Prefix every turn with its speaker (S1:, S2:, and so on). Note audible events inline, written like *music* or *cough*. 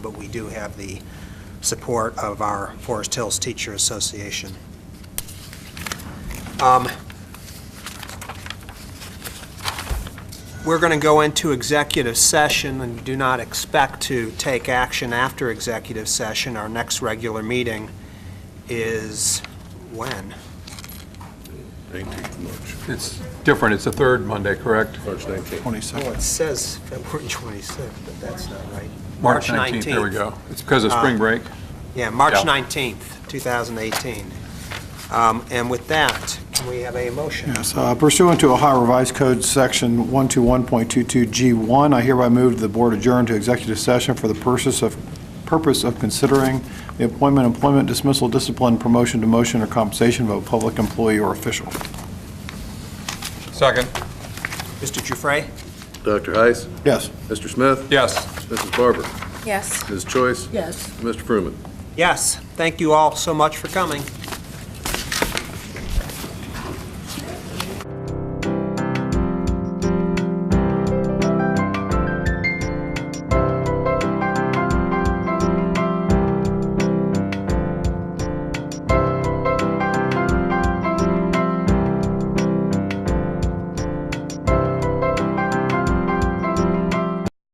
S1: but we do have the support of our Forest Hills Teacher Association. Um, We're going to go into executive session and do not expect to take action after executive session. Our next regular meeting is when?
S2: Nineteenth March,
S3: It's different, it's the third Monday, correct?
S2: March nineteenth.
S1: Well,
S4: 22nd.
S1: it says February *laughs* 26th, but that's not right.
S3: March 19th, there we go. It's because of spring break.
S1: Yeah, March
S3: Yeah.
S1: 19th, 2018. Um, And with that, can we have a motion?
S4: Yes, uh, pursuant to Ohio Revised Code, Section 121.22G1, I hereby move the board adjourn to executive session for the purpose of, purpose of considering the appointment, employment dismissal, discipline, promotion, demotion, or compensation of a public employee or official.
S3: Second.
S1: Mr. Giuffre?
S2: Dr. Heiss,
S4: Yes.
S2: Mr. Smith,
S3: Yes.
S2: Mrs. Barber,
S5: Yes.
S2: Ms. Choice,
S5: Yes.
S2: Mr. Fruman.
S1: Yes, thank you all so much for coming.